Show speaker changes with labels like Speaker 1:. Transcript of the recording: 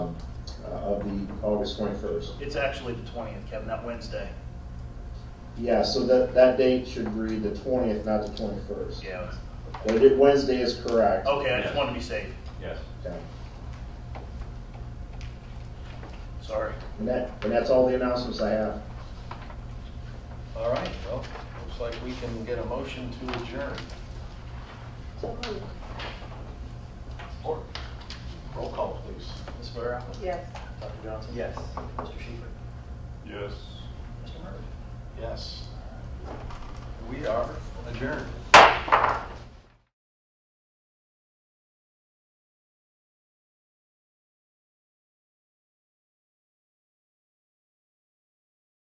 Speaker 1: uh, of the August 21st.
Speaker 2: It's actually the twentieth, Kevin, that Wednesday.
Speaker 1: Yeah, so that, that date should read the 20th, not the 21st.
Speaker 2: Yeah.
Speaker 1: But it- Wednesday is correct.
Speaker 2: Okay, I just wanted to be safe.
Speaker 3: Yes.
Speaker 1: Okay.
Speaker 2: Sorry.
Speaker 1: And that, and that's all the announcements I have.
Speaker 4: All right, well, looks like we can get a motion to adjourn.
Speaker 5: So moved.
Speaker 4: Roll call, please.
Speaker 2: Ms. Guerrero?
Speaker 5: Yes.
Speaker 2: Dr. Johnson? Yes. Mr. Schiefer?
Speaker 3: Yes.
Speaker 2: Mr. Murray?
Speaker 4: Yes. We are adjourned.